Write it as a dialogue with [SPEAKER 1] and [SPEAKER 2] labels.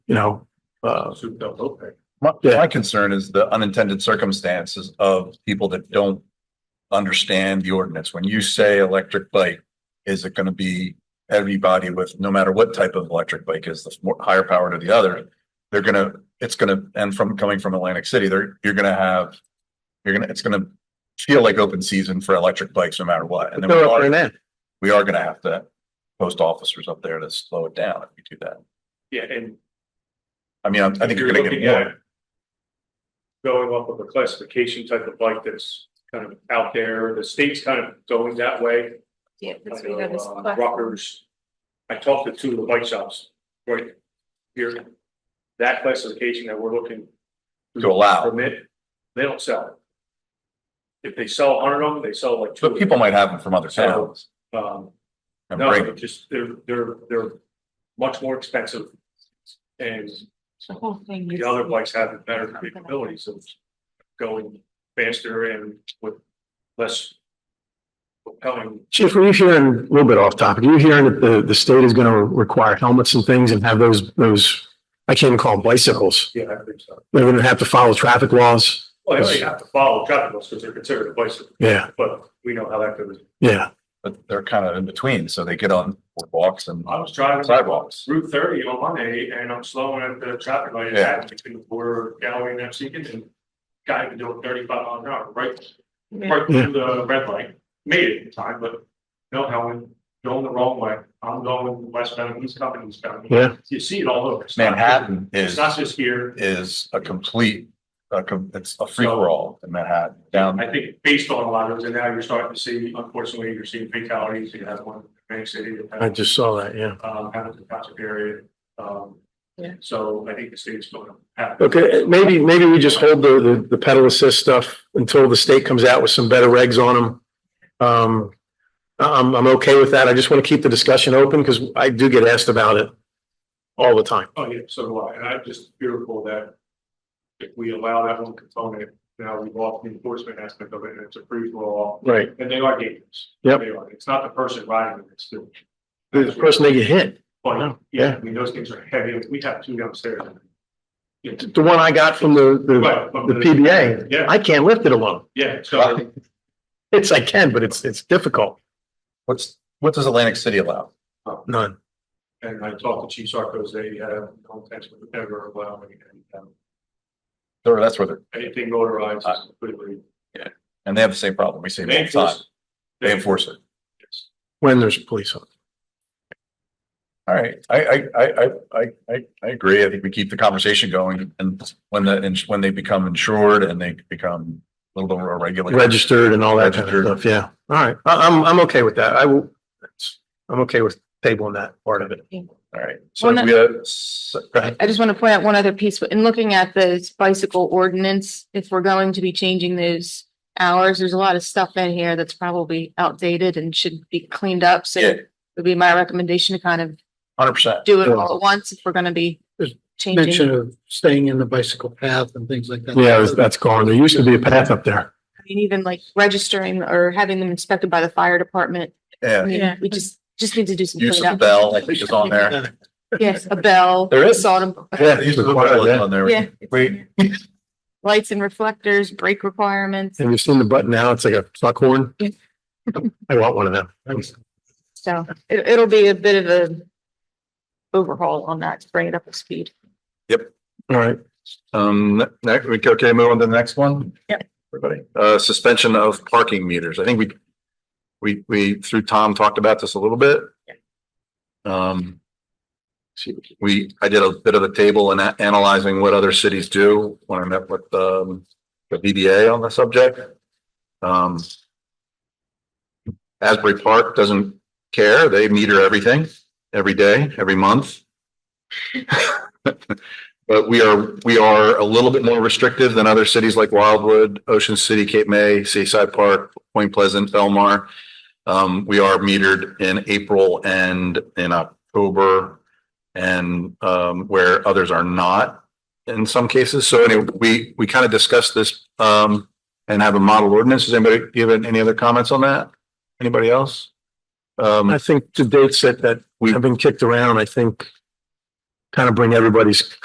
[SPEAKER 1] you know, uh,
[SPEAKER 2] souped up OPEC.
[SPEAKER 3] My,
[SPEAKER 1] Yeah.
[SPEAKER 3] my concern is the unintended circumstances of people that don't understand the ordinance. When you say electric bike, is it gonna be everybody with, no matter what type of electric bike is, the more higher power to the other? They're gonna, it's gonna, and from coming from Atlantic City, they're, you're gonna have, you're gonna, it's gonna feel like open season for electric bikes no matter what. And then we
[SPEAKER 1] they're up there
[SPEAKER 3] are,
[SPEAKER 1] now.
[SPEAKER 3] we are gonna have to post officers up there to slow it down if we do that.
[SPEAKER 2] Yeah, and
[SPEAKER 3] I mean, I I think
[SPEAKER 2] if
[SPEAKER 3] you're
[SPEAKER 2] you're
[SPEAKER 3] gonna get
[SPEAKER 2] looking
[SPEAKER 3] more.
[SPEAKER 2] at going up with a classification type of bike that's kind of out there, the state's kind of going that way.
[SPEAKER 4] Yeah, that's
[SPEAKER 2] I
[SPEAKER 4] what we
[SPEAKER 2] know,
[SPEAKER 4] got this
[SPEAKER 2] uh,
[SPEAKER 4] platform.
[SPEAKER 2] Rutgers. I talked to two of the bike shops right here. That classification that we're looking.
[SPEAKER 3] To allow.
[SPEAKER 2] Permit, they don't sell it. If they sell a hundred of them, they sell like two.
[SPEAKER 3] But people might have them from other
[SPEAKER 2] So,
[SPEAKER 3] towns
[SPEAKER 2] Um,
[SPEAKER 3] and
[SPEAKER 2] no,
[SPEAKER 3] bring
[SPEAKER 2] they're just, they're, they're, they're much more expensive. And
[SPEAKER 4] The whole thing.
[SPEAKER 2] the
[SPEAKER 4] is-
[SPEAKER 2] other bikes have the better capabilities of going faster and with less. Propelling,
[SPEAKER 1] Chief, were you hearing, a little bit off topic, are you hearing that the, the state is gonna require helmets and things and have those, those, I can't even call them bicycles.
[SPEAKER 2] yeah, I think so.
[SPEAKER 1] They're gonna have to follow traffic laws.
[SPEAKER 2] Well, they really have to follow traffic laws because they're considered a bicycle,
[SPEAKER 1] Yeah,
[SPEAKER 2] but we know how that goes.
[SPEAKER 1] yeah.
[SPEAKER 3] but they're kind of in between, so they get on walks and
[SPEAKER 2] I was driving
[SPEAKER 3] sidewalks.
[SPEAKER 2] Route thirty on Monday and I'm slowing at the traffic light.
[SPEAKER 3] Yeah.
[SPEAKER 2] It's Between four Galloway and Muskegon and guy been doing thirty five miles an hour, right?
[SPEAKER 4] Yeah.
[SPEAKER 2] right through the red light, made it in time, but no helmet, going the wrong way. I'm going westbound, he's coming eastbound.
[SPEAKER 1] Yeah.
[SPEAKER 2] You see it all over. It's not-
[SPEAKER 3] Manhattan
[SPEAKER 2] It's
[SPEAKER 3] is,
[SPEAKER 2] not just here.
[SPEAKER 3] is a complete, a com- it's a free for all in Manhattan down.
[SPEAKER 2] I think based on a lot of those, and now you're starting to see, unfortunately, you're seeing fatalities. You have one in Bank City. that
[SPEAKER 1] I
[SPEAKER 2] had-
[SPEAKER 1] just saw that, yeah.
[SPEAKER 2] Um, happened in the township area. Um,
[SPEAKER 4] Yeah.
[SPEAKER 2] so I think the state's going to have.
[SPEAKER 1] Okay, eh, maybe, maybe we just hold the, the, the pedal assist stuff until the state comes out with some better regs on them. Um, I- I'm, I'm okay with that. I just want to keep the discussion open because I do get asked about it all the time.
[SPEAKER 2] Oh, yeah, so do I, and I'm just fearful that if we allow that one component, now we've lost the enforcement aspect of it, and it's a free for all,
[SPEAKER 1] Right.
[SPEAKER 2] and they are dangerous.
[SPEAKER 1] Yep.
[SPEAKER 2] They are, it's not the person riding it, it's the.
[SPEAKER 1] The person they get hit.
[SPEAKER 2] But, yeah,
[SPEAKER 1] Yeah.
[SPEAKER 2] I mean, those things are heavy, we have two downstairs. It's-
[SPEAKER 1] The one I got from the, the,
[SPEAKER 2] Right, but-
[SPEAKER 1] the PBA,
[SPEAKER 2] Yeah,
[SPEAKER 1] I can't lift it alone.
[SPEAKER 2] yeah, so,
[SPEAKER 1] It's, I can, but it's, it's difficult.
[SPEAKER 3] What's, what does Atlantic City allow?
[SPEAKER 1] None.
[SPEAKER 2] and I talked to Chief Sarcos, they have no intention of ever allowing any, um,
[SPEAKER 3] Or that's where they're,
[SPEAKER 2] anything motorized is completely.
[SPEAKER 3] and Uh, they have the same problem. We see it all the time. They enforce it.
[SPEAKER 2] Yes.
[SPEAKER 1] When there's police on.
[SPEAKER 3] All right. I, I, I, I, I, I, I agree. I think we keep the conversation going and when the, ins- when they become insured and they become a little bit more regulated.
[SPEAKER 1] Registered and all that kind of
[SPEAKER 3] Registered.
[SPEAKER 1] stuff. Yeah. All right. I, I'm, I'm okay with that. I will, that's- I'm okay with tabling that part of it.
[SPEAKER 3] All right. So
[SPEAKER 4] Well,
[SPEAKER 3] if
[SPEAKER 4] no-
[SPEAKER 3] we, uh, s- go ahead.
[SPEAKER 4] I just want to point out one other piece, in looking at this bicycle ordinance, if we're going to be changing those hours, there's a lot of stuff in here that's probably outdated and should be cleaned up, so
[SPEAKER 3] Yeah.
[SPEAKER 4] it would be my recommendation to kind of
[SPEAKER 3] Hundred percent.
[SPEAKER 4] do it all at once if we're gonna be changing.
[SPEAKER 5] mention of staying in the bicycle path and things like that.
[SPEAKER 1] Yeah, that's gone. There used to be a path up there.
[SPEAKER 4] I mean, even like registering or having them inspected by the fire department, I
[SPEAKER 3] Yeah.
[SPEAKER 4] mean, we just, just need to do some
[SPEAKER 3] Use of the
[SPEAKER 4] cleanup.
[SPEAKER 3] bell, I think is on there.
[SPEAKER 4] Yes, a bell.
[SPEAKER 3] There is.
[SPEAKER 4] salt and-
[SPEAKER 1] Yeah.
[SPEAKER 3] These are the buttons on there.
[SPEAKER 4] Yeah.
[SPEAKER 3] Wait,
[SPEAKER 4] Lights and reflectors, brake requirements,
[SPEAKER 1] Have you seen the button now? It's like a truck horn.
[SPEAKER 4] Yeah.
[SPEAKER 1] I want one of them.
[SPEAKER 4] so it, it'll be a bit of a overhaul on that, to bring it up to speed.
[SPEAKER 1] All right.
[SPEAKER 3] um, ne- next, we, okay, move on to the next one?
[SPEAKER 4] Yep.
[SPEAKER 3] Everybody, uh, suspension of parking meters. I think we, we, we, through Tom, talked about this a little bit. Um, we, I did a bit of a table and analyzing what other cities do when I met with, um, the VBA on the subject. Um, Asbury Park doesn't care. They meter everything, every day, every month. But we are, we are a little bit more restrictive than other cities like Wildwood, Ocean City, Cape May, Seaside Park, Point Pleasant, Belmar. Um, we are metered in April and in October and, um, where others are not in some cases. So anyway, we, we kind of discussed this, um, and have a model ordinance. Does anybody give any other comments on that? Anybody else? Um,
[SPEAKER 1] I think the date set that
[SPEAKER 3] We-
[SPEAKER 1] have been kicked around, I think kind of bring everybody's